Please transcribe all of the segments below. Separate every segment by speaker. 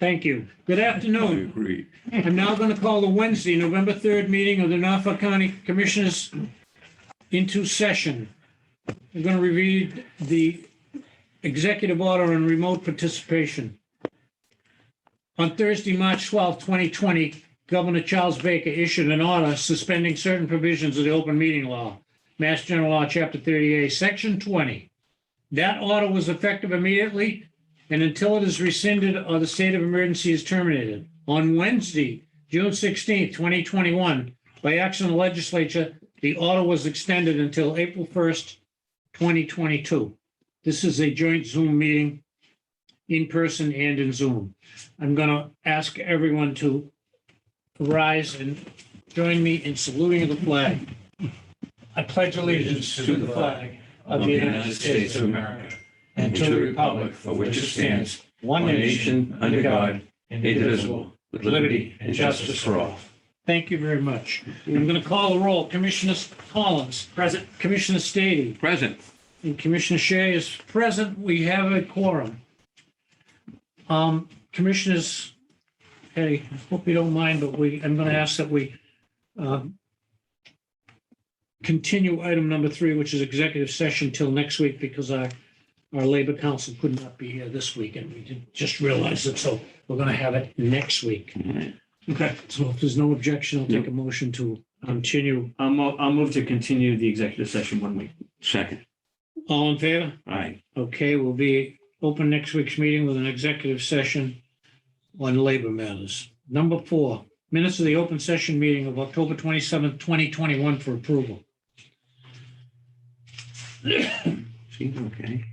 Speaker 1: Thank you. Good
Speaker 2: I
Speaker 1: afternoon.
Speaker 2: agree.
Speaker 1: I'm now going to call the Wednesday, November 3rd meeting of the Norfolk County Commissioners into session. I'm going to read the executive order on remote participation. On Thursday, March 12, 2020, Governor Charles Baker issued an order suspending certain provisions of the open meeting law, Mass General Law, Chapter 38, Section 20. That order was effective immediately and until it is rescinded or the state of emergency is terminated. On Wednesday, June 16, 2021, by action of the legislature, the order was extended until April 1st, 2022. This is a joint Zoom meeting in person and in Zoom. I'm going to ask everyone to rise and join me in saluting the flag. I pledge allegiance to the flag of the United States of America and to the republic for which it stands, one
Speaker 2: One
Speaker 1: nation,
Speaker 2: nation, under God, indivisible, with liberty and justice for all.
Speaker 1: Thank you very much. I'm going to call the roll. Commissioner Collins. Present. Commissioner Stady.
Speaker 2: Present.
Speaker 1: And Commissioner Shea is present. We have a quorum. Um, Commissioners, hey, I hope you don't mind, but we, I'm going to ask that we um, continue item number three, which is executive session till next week because our, our Labor Council could not be here this week and we did just realize it. So we're going to have it next week.
Speaker 3: Okay,
Speaker 1: So if there's no objection, I'll take a motion to continue.
Speaker 3: I'll, mo- I'll move to continue the executive session one week.
Speaker 2: Second.
Speaker 1: All in favor?
Speaker 2: Aye.
Speaker 1: Okay, we'll be open next week's meeting with an executive session on labor matters. Number four, minutes of the open session meeting of October 27th, 2021 for approval.
Speaker 2: See, okay.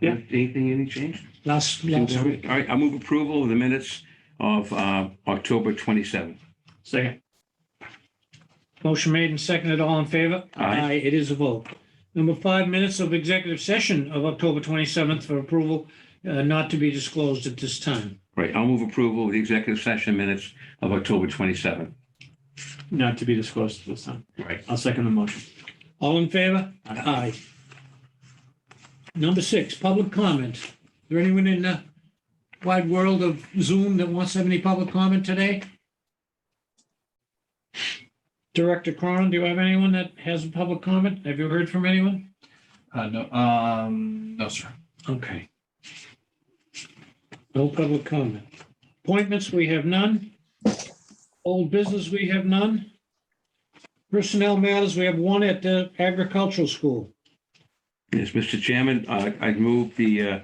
Speaker 3: Yeah.
Speaker 2: Anything, any change?
Speaker 1: Last,
Speaker 2: All
Speaker 1: last week.
Speaker 2: right, I move approval of the minutes of uh, October 27th.
Speaker 3: Second,
Speaker 1: Motion made and seconded, all in favor?
Speaker 2: Aye.
Speaker 1: It is a vote. Number five, minutes of executive session of October 27th for approval, uh, not to be disclosed at this time.
Speaker 2: Right, I'll move approval of the executive session minutes of October 27th.
Speaker 3: not to be disclosed at this time.
Speaker 2: Right.
Speaker 3: I'll second the motion.
Speaker 1: All in favor? Aye. Number six, public comment. Is there anyone in the wide world of Zoom that wants to have any public comment today? Director Cronin, do you have anyone that has a public comment? Have you heard from anyone?
Speaker 4: Uh, no, um, no, sir.
Speaker 1: Okay. No public comment. Appointments, we have none. Old business, we have none. Personnel matters, we have one at the agricultural school.
Speaker 2: Yes, Mr. Chairman, I I move the, uh,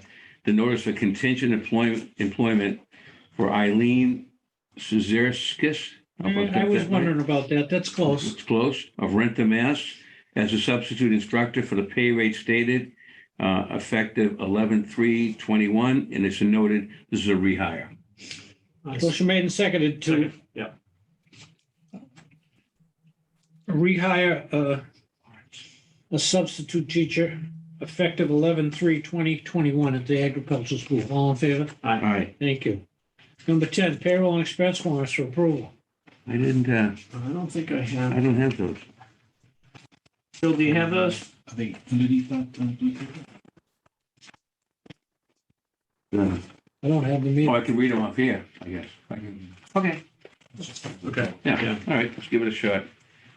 Speaker 2: the notice of contingent employment, employment for Eileen Suzerskis.
Speaker 1: Mm, I was wondering about that. That's close.
Speaker 2: It's close, of Rentham, Mass, as a substitute instructor for the pay rate stated, uh, effective 11/3/21, and it's noted, this is a rehire.
Speaker 1: Motion made and seconded to
Speaker 3: Second, Yeah,
Speaker 1: rehire uh, a substitute teacher effective 11/3/2021 at the agricultural school. All in favor?
Speaker 2: All right,
Speaker 1: Thank you. Number 10, payroll and expense warrants for approval.
Speaker 2: I didn't, uh,
Speaker 3: I don't think I
Speaker 2: I
Speaker 3: have.
Speaker 2: don't have those.
Speaker 3: Phil, do you have those?
Speaker 4: Are they underneath that? uh, blue paper?
Speaker 2: Uh,
Speaker 1: I don't have them
Speaker 2: Oh,
Speaker 1: either.
Speaker 2: I can read them off here, I guess. I can- Okay.
Speaker 3: Okay.
Speaker 2: Yeah,
Speaker 3: Yeah.
Speaker 2: all right, let's give it a shot.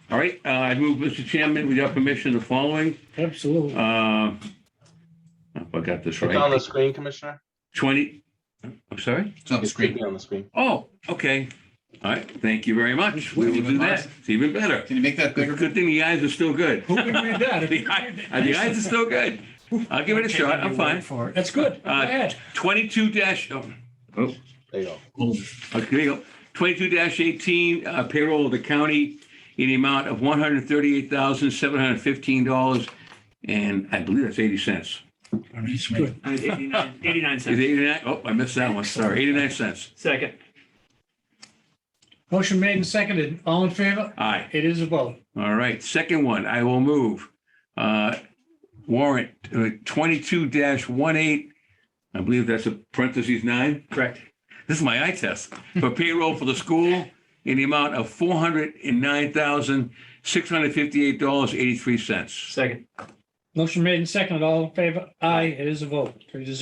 Speaker 2: All right, uh, I move, Mr. Chairman, with your permission, the following.
Speaker 1: Absolutely.
Speaker 2: Uh, I forgot this
Speaker 5: It's on the
Speaker 2: right.
Speaker 5: screen, Commissioner.
Speaker 2: 20, I'm sorry?
Speaker 4: It's on the
Speaker 5: It should
Speaker 4: screen.
Speaker 5: be on the screen.
Speaker 2: Oh, okay. All right, thank you very much. We will do that. It's even better.
Speaker 4: Can you make that bigger?
Speaker 2: Good thing the eyes are still good.
Speaker 1: Who can read that?
Speaker 2: The eye- uh, the eyes are still good. I'll give it a shot. I'm fine.
Speaker 1: That's good. Go
Speaker 2: Uh,
Speaker 1: ahead.
Speaker 2: Twenty-two dash, oh, oh,
Speaker 5: There you go.
Speaker 2: okay, there you go. Twenty-two dash eighteen, uh, payroll of the county in the amount of one hundred thirty-eight thousand, seven hundred fifteen dollars. And I believe that's eighty cents.
Speaker 1: Good.
Speaker 3: I had 89 89
Speaker 2: Is it
Speaker 3: cents.
Speaker 2: eighty-nine? Oh, I missed that one. Sorry, eighty-nine cents.
Speaker 3: Second,
Speaker 1: Motion made and seconded. All in favor?
Speaker 2: Aye.
Speaker 1: It is a vote.
Speaker 2: All right, second one, I will move. Uh, Warrant uh, twenty-two dash one eight, I believe that's a parentheses nine.
Speaker 3: correct.
Speaker 2: This is my eye test for payroll for the school in the amount of four hundred and nine thousand, six hundred fifty-eight dollars, eighty-three cents.
Speaker 3: Second.
Speaker 1: Motion made and seconded. All in favor? Aye. It is a vote. Three to zero.